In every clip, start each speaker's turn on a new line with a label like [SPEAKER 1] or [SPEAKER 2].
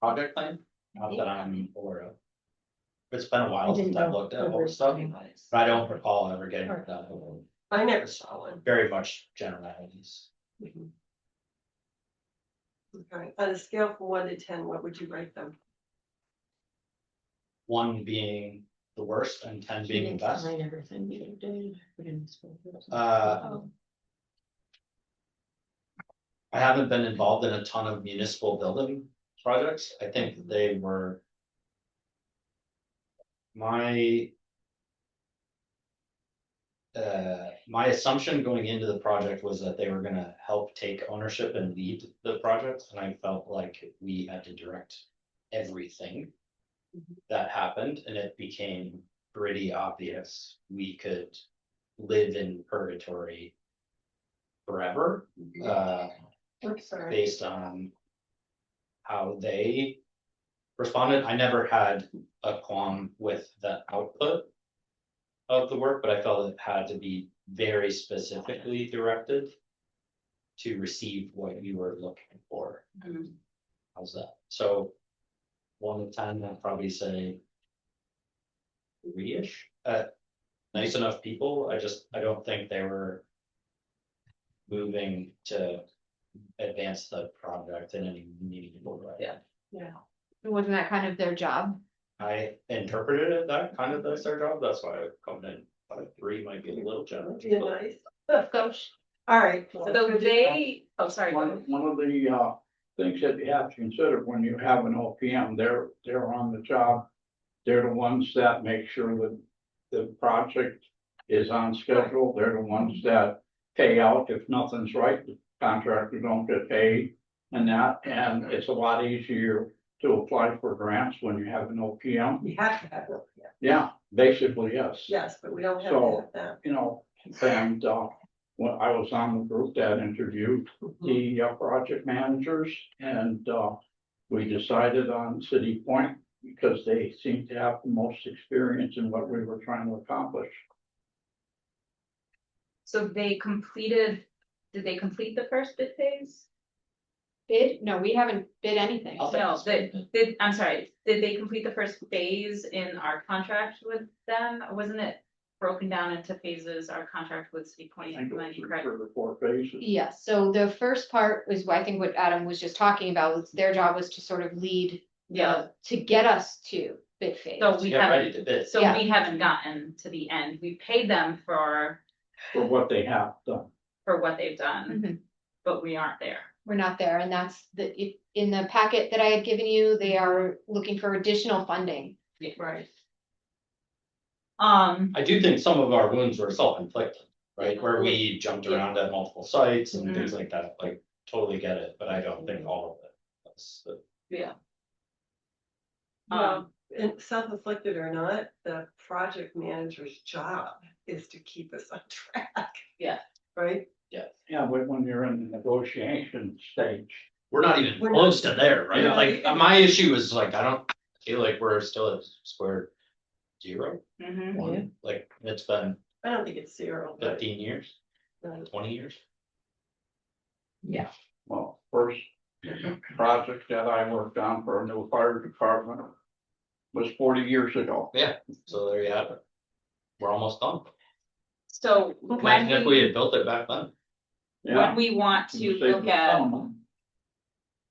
[SPEAKER 1] project plan, not that I'm aware of. It's been a
[SPEAKER 2] I
[SPEAKER 1] while
[SPEAKER 2] didn't
[SPEAKER 1] since I've
[SPEAKER 2] know
[SPEAKER 1] looked at
[SPEAKER 2] the
[SPEAKER 1] all the
[SPEAKER 2] word
[SPEAKER 1] stuff,
[SPEAKER 2] design.
[SPEAKER 1] but I don't recall ever getting
[SPEAKER 2] Alright.
[SPEAKER 1] that, one.
[SPEAKER 2] I never saw one.
[SPEAKER 1] very much generalities.
[SPEAKER 2] Okay, on a scale from one to ten, what would you rate them?
[SPEAKER 1] One being the worst and ten being the best.
[SPEAKER 3] everything you did. we didn't spoil it.
[SPEAKER 1] Uh,
[SPEAKER 3] Oh,
[SPEAKER 1] I haven't been involved in a ton of municipal building projects. I think they were. My. Uh, my assumption going into the project was that they were gonna help take ownership and lead the project, and I felt like we had to direct everything. That happened, and it became pretty obvious we could live in purgatory. Forever, uh,
[SPEAKER 3] I'm sorry.
[SPEAKER 1] based on how they responded. I never had a qualm with the output of the work, but I felt it had to be very specifically directed to receive what you were looking for.
[SPEAKER 3] Mhm.
[SPEAKER 1] How's that? So one to ten, I'd probably say three-ish. Uh, nice enough people. I just, I don't think they were moving to advance the project in any meaningful way.
[SPEAKER 2] Yeah.
[SPEAKER 3] Yeah.
[SPEAKER 4] Wasn't that kind of their job?
[SPEAKER 1] I interpreted it that kind of that's their job, that's why I come in, like three might be a little generous.
[SPEAKER 2] Be
[SPEAKER 1] but-
[SPEAKER 2] nice.
[SPEAKER 4] Gosh,
[SPEAKER 2] All right,
[SPEAKER 3] So
[SPEAKER 2] so they,
[SPEAKER 3] they, oh, sorry. go
[SPEAKER 5] One,
[SPEAKER 3] ahead.
[SPEAKER 5] one of the, uh, things that you have to consider when you have an OPM, they're, they're on the job. They're the ones that make sure that the project is on schedule. They're the ones that pay out if nothing's right, the contractors don't get paid and that, and it's a lot easier to apply for grants when you have an OPM.
[SPEAKER 2] we have to have, one, yeah,
[SPEAKER 5] Yeah, basically, yes.
[SPEAKER 2] yes, but we don't have to
[SPEAKER 5] So-
[SPEAKER 2] have that.
[SPEAKER 5] You know, and, uh, when I was on the group that interviewed,
[SPEAKER 3] Mm-hmm.
[SPEAKER 5] the uh, project managers and uh, we decided on City Point because they seemed to have the most experience in what we were trying to accomplish.
[SPEAKER 3] So they completed, did they complete the first bid phase?
[SPEAKER 4] bid? No, we haven't bid anything.
[SPEAKER 1] I'll
[SPEAKER 3] No,
[SPEAKER 1] think-
[SPEAKER 3] the, did, I'm sorry, did they complete the first phase in our contract with them? Wasn't it broken down into phases, our contract with City
[SPEAKER 5] I
[SPEAKER 3] Point,
[SPEAKER 5] think it
[SPEAKER 3] am I
[SPEAKER 5] was
[SPEAKER 3] correct?
[SPEAKER 5] three or four phases.
[SPEAKER 4] Yeah, so the first part was, what I think what Adam was just talking about, was their job was to sort of lead. the-
[SPEAKER 3] Yeah.
[SPEAKER 4] To get us to bid phase.
[SPEAKER 3] So we
[SPEAKER 1] Get ready
[SPEAKER 3] haven't,
[SPEAKER 1] to bid,
[SPEAKER 3] so
[SPEAKER 4] Yeah.
[SPEAKER 3] we haven't gotten to the end, we paid them for,
[SPEAKER 5] For what they have done.
[SPEAKER 3] for what they've done,
[SPEAKER 4] Mhm.
[SPEAKER 3] but we aren't there.
[SPEAKER 4] We're not there, and that's the, if, in the packet that I had given you, they are looking for additional funding.
[SPEAKER 2] Right.
[SPEAKER 3] Um,
[SPEAKER 1] I do think some of our wounds were self-inflicted, right, where we jumped around at multiple sites and things like that, like, totally get it, but I don't think all of it. was the-
[SPEAKER 3] um,
[SPEAKER 2] Well, Um, and self-inflicted or not, the project manager's job is to keep us on track.
[SPEAKER 3] Yeah.
[SPEAKER 2] Right?
[SPEAKER 1] Yeah,
[SPEAKER 5] Yeah, but when you're in the negotiation stage,
[SPEAKER 1] we're not even
[SPEAKER 2] We're
[SPEAKER 1] close to there, right,
[SPEAKER 5] Yeah.
[SPEAKER 1] like, uh, my issue is like, I don't feel like we're still at square zero,
[SPEAKER 3] mhm.
[SPEAKER 1] one, like, it's been
[SPEAKER 2] I don't think it's zero, but.
[SPEAKER 1] fifteen years,
[SPEAKER 2] uh,
[SPEAKER 1] twenty years.
[SPEAKER 5] well, first
[SPEAKER 3] Mm-hmm.
[SPEAKER 5] project that I worked on for a new fire department was forty years ago.
[SPEAKER 1] So there you have it. We're almost done.
[SPEAKER 3] So when
[SPEAKER 1] Imagine if we
[SPEAKER 3] we,
[SPEAKER 1] had built it back then.
[SPEAKER 5] Yeah.
[SPEAKER 3] when we want to
[SPEAKER 5] Save
[SPEAKER 3] look
[SPEAKER 5] the
[SPEAKER 3] at
[SPEAKER 5] settlement.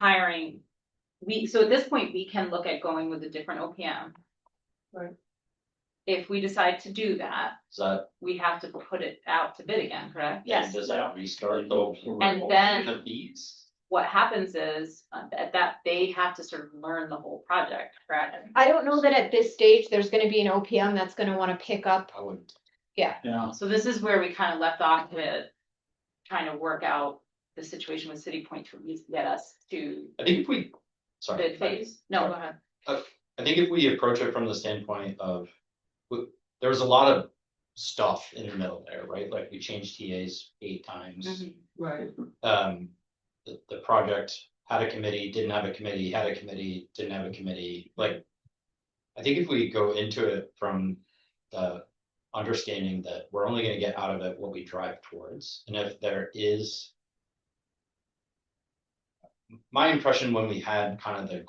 [SPEAKER 3] hiring, we, so at this point, we can look at going with a different OPM.
[SPEAKER 2] Right.
[SPEAKER 3] If we decide to do that,
[SPEAKER 1] Is that?
[SPEAKER 3] we have to put it out to bid again, correct?
[SPEAKER 1] Does that restart the?
[SPEAKER 3] And then-
[SPEAKER 1] The fees?
[SPEAKER 3] What happens is, uh, at that, they have to sort of learn the whole project, correct?
[SPEAKER 4] I don't know that at this stage, there's gonna be an OPM that's gonna wanna pick up
[SPEAKER 1] I would.
[SPEAKER 5] Yeah,
[SPEAKER 3] So this is where we kind of left off with trying to work out the situation with City Point to at least get us to
[SPEAKER 1] I think if we, sorry.
[SPEAKER 3] bid phase. No, go ahead.
[SPEAKER 1] I think if we approach it from the standpoint of, w- there was a lot of stuff in the middle there, right? Like we changed TAs eight times.
[SPEAKER 3] Mm-hmm.
[SPEAKER 2] Right.
[SPEAKER 1] um, the, the project had a committee, didn't have a committee, had a committee, didn't have a committee, like. I think if we go into it from the understanding that we're only gonna get out of it what we drive towards, and if there is. My impression when we had kind of the